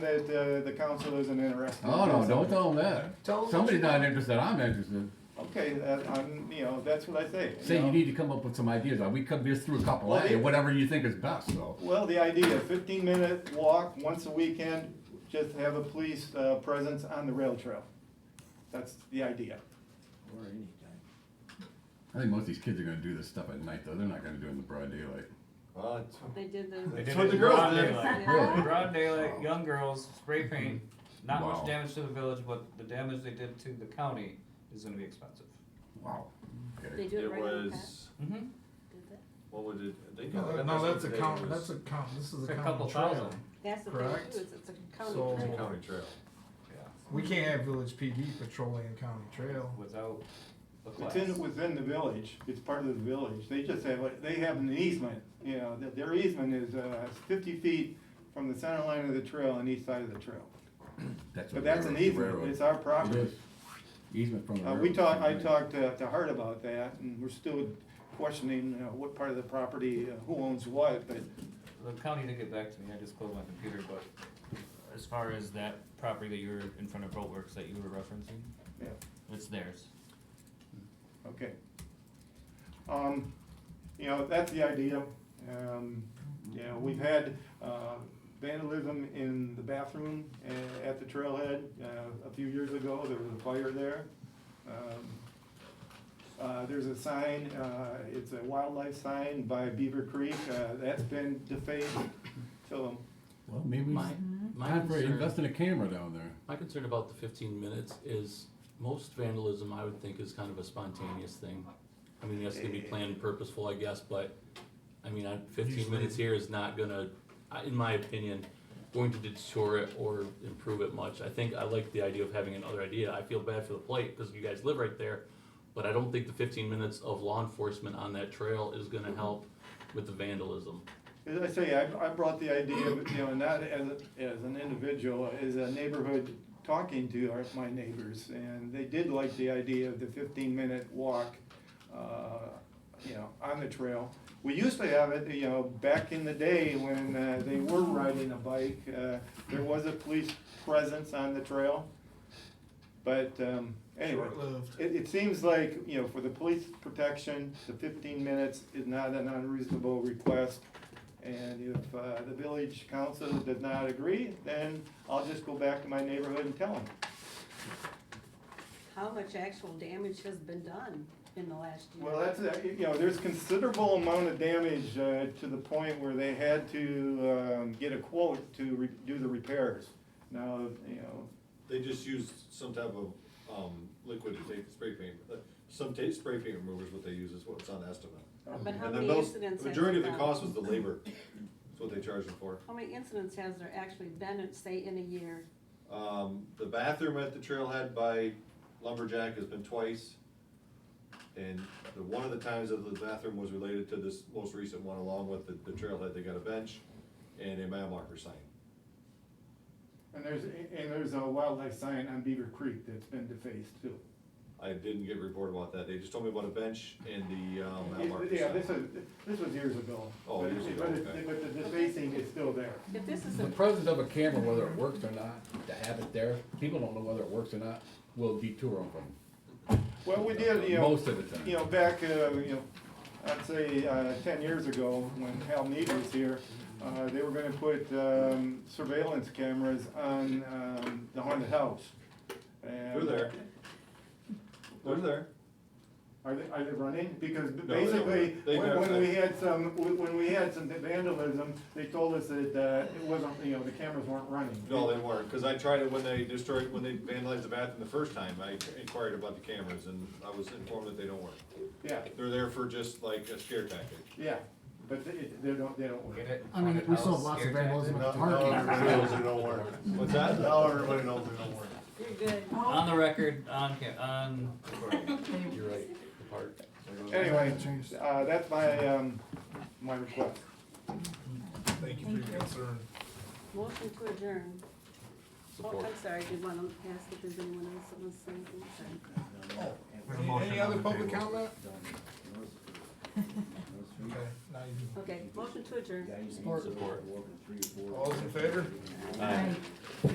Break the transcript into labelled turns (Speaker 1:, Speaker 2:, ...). Speaker 1: that uh, the council isn't interested.
Speaker 2: Oh, no, don't tell them that.
Speaker 1: Tell 'em what
Speaker 2: Somebody's
Speaker 1: you want.
Speaker 2: not interested, I'm interested.
Speaker 1: Okay, that, I'm, you know, that's what I say.
Speaker 2: Say you
Speaker 1: know.
Speaker 2: need to come up with some ideas, like we come just through a couple,
Speaker 1: Well,
Speaker 2: of
Speaker 1: they-
Speaker 2: whatever you think is best, so.
Speaker 1: Well, the idea, fifteen minute walk once a weekend, just have a police uh, presence on the rail trail. That's the idea.
Speaker 3: Or anytime.
Speaker 2: I think most of these kids are gonna do this stuff at night, though, they're not gonna do it in the broad daylight.
Speaker 3: Well, it's-
Speaker 4: They did the.
Speaker 5: They did
Speaker 1: what
Speaker 5: it
Speaker 1: the
Speaker 5: in
Speaker 1: girls
Speaker 5: broad
Speaker 1: did.
Speaker 5: daylight.
Speaker 2: Really?
Speaker 5: Broad daylight, young girls, spray paint, not
Speaker 2: Wow.
Speaker 5: much damage to the village, but the damage they did to the county is gonna be expensive.
Speaker 2: Wow. Okay.
Speaker 4: They do it
Speaker 3: It
Speaker 4: right on the path.
Speaker 3: was,
Speaker 5: Mm-hmm.
Speaker 4: Did that-
Speaker 3: what would it, they got
Speaker 6: No,
Speaker 3: it.
Speaker 6: no, that's a
Speaker 3: It
Speaker 6: count,
Speaker 3: was-
Speaker 6: that's a count, this is
Speaker 5: It's
Speaker 6: a
Speaker 5: a
Speaker 6: county
Speaker 5: couple
Speaker 6: trail.
Speaker 5: thousand.
Speaker 4: That's the thing
Speaker 6: Correct.
Speaker 4: too, it's, it's a county
Speaker 6: So-
Speaker 3: It's a
Speaker 4: trail.
Speaker 3: county trail.
Speaker 5: Yeah.
Speaker 6: We can't have village PD patrolling a county trail.
Speaker 5: Without the
Speaker 1: It's
Speaker 5: class.
Speaker 1: in, within the village, it's part of the village, they just have, a- they have an easement, you know, th- their easement is, uh, fifty feet from the center line of the trail on each side of the trail.
Speaker 2: That's
Speaker 1: But
Speaker 2: what
Speaker 1: that's an
Speaker 2: railroad-
Speaker 1: easement,
Speaker 2: railroad.
Speaker 1: it's our
Speaker 2: It
Speaker 1: property.
Speaker 2: is. Easement from the
Speaker 1: Uh,
Speaker 2: railroad.
Speaker 1: we talked, I
Speaker 2: company.
Speaker 1: talked to, to Hart about that, and we're still questioning, you know, what part of the property, uh, who owns what, but
Speaker 5: The county didn't get back to me, I just closed my computer, but as far as that property that you were in front of Boatworks that you were referencing,
Speaker 1: Yeah,
Speaker 5: it's theirs.
Speaker 1: okay. Um, you know, that's the idea. Um, you know, we've had, uh, vandalism in the bathroom a- at the trailhead, uh, a few years ago, there was a fire there. Um, Uh, there's a sign, uh, it's a wildlife sign by Beaver Creek, uh, that's been defaced, so,
Speaker 2: Well, maybe we
Speaker 7: My,
Speaker 2: should
Speaker 7: my
Speaker 2: invest
Speaker 7: concern,
Speaker 2: in a camera down there.
Speaker 7: my concern about the fifteen minutes is most vandalism, I would think, is kind of a spontaneous thing. I mean, that's gonna be planned and purposeful, I guess, but, I mean, I- fifteen minutes here is not gonna, I- in my opinion, going to deter it or improve it much. I think I like the idea of having another idea. I feel bad for the plate, because you guys live right there, but I don't think the fifteen minutes of law enforcement on that trail is gonna help with the vandalism.
Speaker 1: As I say, I, I brought the idea of, you know, not as, as an individual, as a neighborhood talking to our, my neighbors, and they did like the idea of the fifteen minute walk, uh, you know, on the trail. We used to have it, you know, back in the day when, uh, they were riding a bike, uh, there was a police presence on the trail. But, um, anyway.
Speaker 6: Short-lived.
Speaker 1: It, it seems like, you know, for the police protection, the fifteen minutes is not an unreasonable request. And if, uh, the village council does not agree, then I'll just go back to my neighborhood and tell them.
Speaker 4: How much actual damage has been done in the last year?
Speaker 1: Well, that's, uh, you know, there's considerable amount of damage, uh, to the point where they had to, um, get a quote to re- do the repairs. Now, you know,
Speaker 3: They just used some type of, um, liquid to take spray paint, uh, some ta- spray paint remover is what they use, is what's on estimate.
Speaker 4: But how
Speaker 3: And then
Speaker 4: many
Speaker 3: those-
Speaker 4: incidents
Speaker 3: The
Speaker 4: has
Speaker 3: majority
Speaker 4: there
Speaker 3: of the cost
Speaker 4: been?
Speaker 3: was the labor, that's what they charged them for.
Speaker 4: How many incidents has there actually been, in, say, in a year?
Speaker 3: Um, the bathroom at the trailhead by Lumberjack has been twice. And the, one of the times that the bathroom was related to this most recent one, along with the, the trailhead, they got a bench and a mile marker sign.
Speaker 1: and there's, and there's a wildlife sign on Beaver Creek that's been defaced too.
Speaker 3: I didn't get a report about that, they just told me about a bench and the, um, mile marker
Speaker 1: Yeah, this
Speaker 3: sign.
Speaker 1: was, this was years ago.
Speaker 3: Oh,
Speaker 1: But
Speaker 3: years
Speaker 1: it-
Speaker 3: ago,
Speaker 1: but it-
Speaker 3: okay.
Speaker 1: But the defacing is still there.
Speaker 4: If this is
Speaker 2: The
Speaker 4: a,
Speaker 2: presence of a camera, whether it works or not, to have it there, people don't know whether it works or not, will detour them from
Speaker 1: Well, we did, you know.
Speaker 2: Most of the time.
Speaker 1: You know, back, uh, you know, I'd say, uh, ten years ago, when Hal Mead was here, uh, they were gonna put, um, surveillance cameras on, um, the haunted house.
Speaker 3: They're there, they're there.
Speaker 1: Are they, are they running? Because
Speaker 3: they don't.
Speaker 1: basically,
Speaker 3: They
Speaker 1: when, when
Speaker 3: never-
Speaker 1: we had some, when when we had some vandalism, they told us that, uh, it wasn't, you know, the cameras weren't running.
Speaker 3: No, they weren't, because I tried it when they destroyed, when they vandalized the bathroom the first time, I inquired about the cameras, and I was informed that they don't work.
Speaker 1: Yeah,
Speaker 3: They're there for just like a scare tactic.
Speaker 1: yeah, but they, they don't, they don't work.
Speaker 5: Get it?
Speaker 6: I mean, we saw
Speaker 5: Haunted
Speaker 6: lots
Speaker 5: house,
Speaker 6: of
Speaker 5: scare
Speaker 6: vandalism
Speaker 5: tactic.
Speaker 6: at the parking.
Speaker 3: What's that?
Speaker 6: Now everybody knows they don't work.
Speaker 4: you're good.
Speaker 5: On the record, on cam, on.
Speaker 7: You're right, the part.
Speaker 1: Anyway,
Speaker 6: Changed.
Speaker 1: uh, that's my, um, my request.
Speaker 6: Thank you for your concern.
Speaker 4: Motion to adjourn. Oh,
Speaker 7: Support.
Speaker 4: I'm sorry, I did want to ask if there's anyone else that wants to say anything, sorry.
Speaker 6: Any other public comment? Okay, now you
Speaker 4: Okay, motion to adjourn.
Speaker 7: Guy used to
Speaker 2: Support.
Speaker 7: walk in three or four-
Speaker 6: All's in favor?
Speaker 7: Aye.